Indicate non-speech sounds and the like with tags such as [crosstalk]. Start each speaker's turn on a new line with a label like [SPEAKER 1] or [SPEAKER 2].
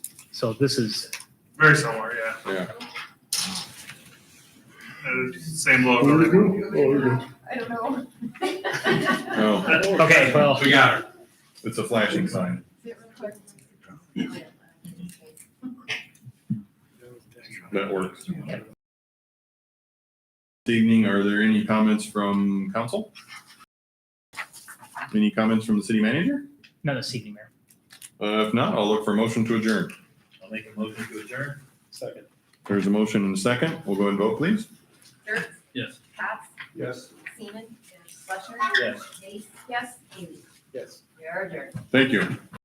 [SPEAKER 1] So this is,
[SPEAKER 2] Very similar, yeah.
[SPEAKER 3] Yeah.
[SPEAKER 2] Uh, Same logo. everything.
[SPEAKER 4] I don't know.
[SPEAKER 3] No,
[SPEAKER 2] Okay.
[SPEAKER 1] well,
[SPEAKER 2] We got it.
[SPEAKER 3] [laughs] it's a flashing sign. That works. This evening, are there any comments from council? Any comments from the city manager?
[SPEAKER 1] not this evening, Mayor.
[SPEAKER 3] Uh, if not, I'll look for a motion to adjourn.
[SPEAKER 5] I'll make a motion to adjourn.
[SPEAKER 6] Second.
[SPEAKER 3] There's a motion and a second. We'll go and vote, please.
[SPEAKER 4] Dirk,
[SPEAKER 5] Yes.
[SPEAKER 4] Cox,
[SPEAKER 6] Yes.
[SPEAKER 4] Seaman, Fletcher.
[SPEAKER 5] Yes.
[SPEAKER 4] Nace. Yes. Haley.
[SPEAKER 6] Yes.
[SPEAKER 4] You're adjourned.
[SPEAKER 3] Thank you.